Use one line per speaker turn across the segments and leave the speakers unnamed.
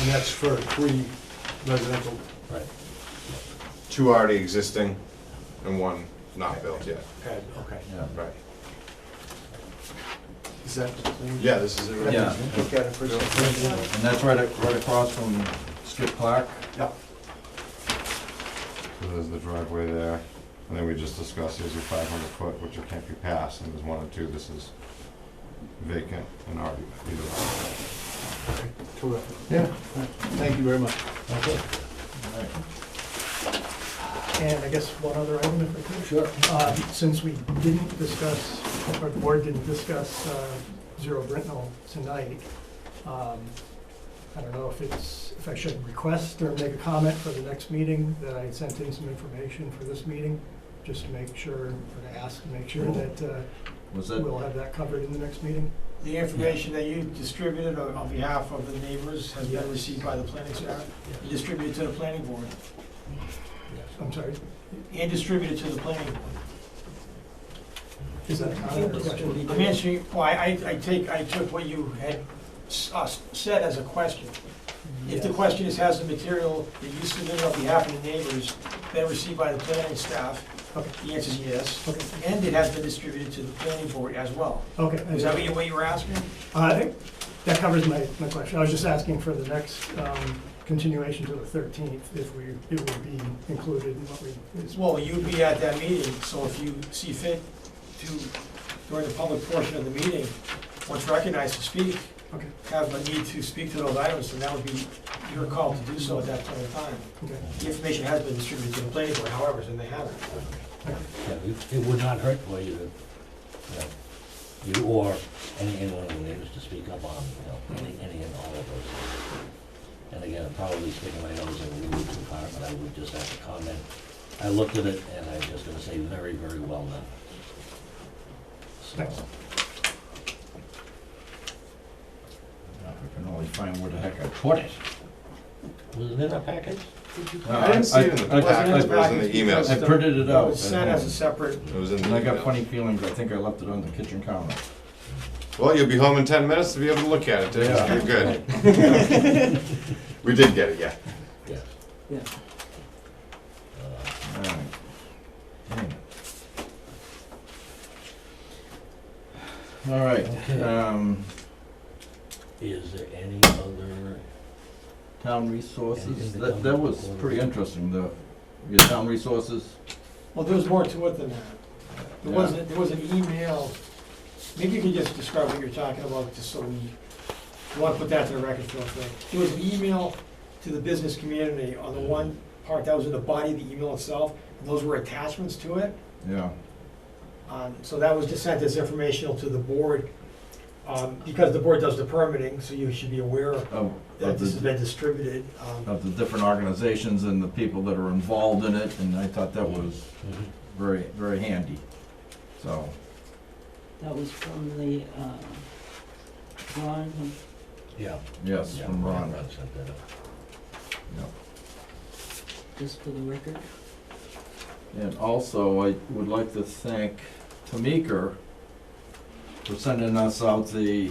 and that's for three residential.
Right.
Two already existing and one not built yet.
pad, okay.
Yeah.
Right.
Is that the thing?
Yeah, this is it.
Yeah.
Look at it for the-
And that's right, ac- right across from Skip Clark.
Yeah.
So there's the driveway there, and then we just discussed, here's your five hundred foot, which it can't be passed, and there's one and two, this is vacant and already.
Terrific.
Yeah.
Thank you very much.
And I guess one other item if I could.
Sure.
Uh, Since we didn't discuss, our board didn't discuss uh, Zero Britnell tonight, um, I don't know if it's, if I should request or make a comment for the next meeting, that I sent in some information for this meeting, just to make sure, or to ask, to make sure that uh,
Was that,
we'll have that covered in the next meeting.
The information that you distributed on on behalf of the neighbors has been received by the planning staff, and distributed to the planning board,
I'm sorry,
and distributed to the planning board.
is that a comment or a question?
I'm answering, well, I, I I take, I took what you had s- uh, said as a question. If the question is, has the material that you submitted on behalf of the neighbors been received by the planning staff?
Okay.
The answer is yes,
Okay.
and it has been distributed to the planning board as well.
Okay. I-
Is that what you- what you were asking?
Uh, I think That covers my, my question. I was just asking for the next um, continuation to the 13th, if we, it would be included in what we, is-
Well, you'd be at that meeting, so if you see fit to, during the public portion of the meeting, once recognized to speak,
okay,
have a need to speak to those items, then that would be your call to do so at that point in time.
okay.
The information has been distributed to the planning board, however, and they haven't.
Yeah, it- It would not hurt for you to, uh, you or any, any one of the neighbors to speak up on, you know, any, any and all of those. And again, I'm probably sticking my nose in a little too far, but I would just have to comment. I looked at it and I'm just gonna say very, very well done. So,
Thanks.
I can only find where the heck I put it.
was it in our package?
I didn't see it in the
I- I-
packet, it was in the
I
emails.
printed it out.
It was sent as a separate,
It was in the
And I got
email.
funny feelings, I think I left it on the kitchen counter.
Well, you'll be home in ten minutes to be able to look at it, Dick,
Yeah.
you're good. We did get it, yeah.
Yes.
Yeah.
Uh,
All right. Dang it. All right,
Okay.
um,
Is there any other,
town
Anything
resources,
to
that,
come
that was
before
pretty
we-
interesting, the, your town resources.
well, there was more to it than that. There
Yeah.
was, there was an email, maybe you can just describe what you're talking about, just so we, we want to put that to the record real quick. There was an email to the business community on the one part that was in the body of the email itself, and those were attachments to it.
Yeah,
Um, So that was just sent as informational to the board, um, because the board does the permitting, so you should be aware
of,
that
of
this has
the,
been distributed. um,
of the different organizations and the people that are involved in it, and I thought that was
mhm,
very, very handy, so.
That was from the, uh, Ron,
yeah.
Yes,
yeah,
from Ron,
Ron sent that out.
yeah.
just for the record.
And also, I would like to thank Tamika for sending us out the,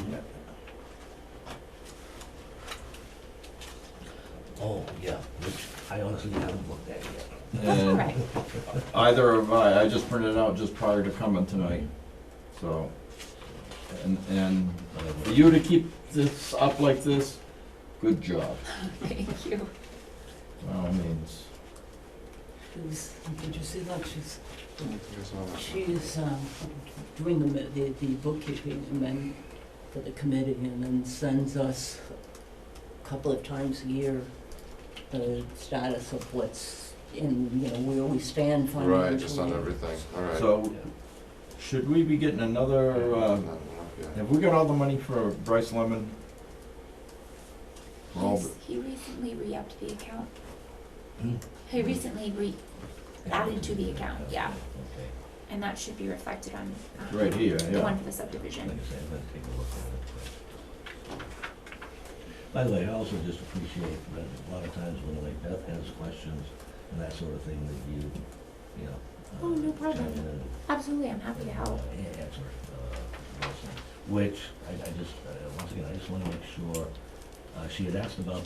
Oh, yeah, which I honestly haven't looked at yet.
and either of I, I just printed it out just prior to coming tonight, so. And, and
but I will.
for you to keep this up like this, good job,
Thank you.
by all means.
It was, did you see that? She's, she is, um, doing the, mi- the, the bookkeeping and then for the committee and then sends us a couple of times a year the status of what's in, you know, where we stand financially.
Right, just on everything, all right.
So, should we be getting another, uh,
Yeah.
have we got all the money for Bryce Lemon? For all
He's,
the-
he recently re-upped the account.
Hmm.
He recently re, added to the account, yeah,
Okay.
and that should be reflected on, um,
Right here,
the
yeah.
one for the
Like
subdivision.
I said, I'm gonna take a look at it quick. By the way, I also just appreciate that a lot of times when like Beth has questions and that sort of thing, that you, you know. uh,
Oh, no problem.
chime in and-
Absolutely, I'm happy to help.
Yeah, answer, uh, Wilson, which I, I just, uh, once again, I just wanna make sure, uh, she had asked about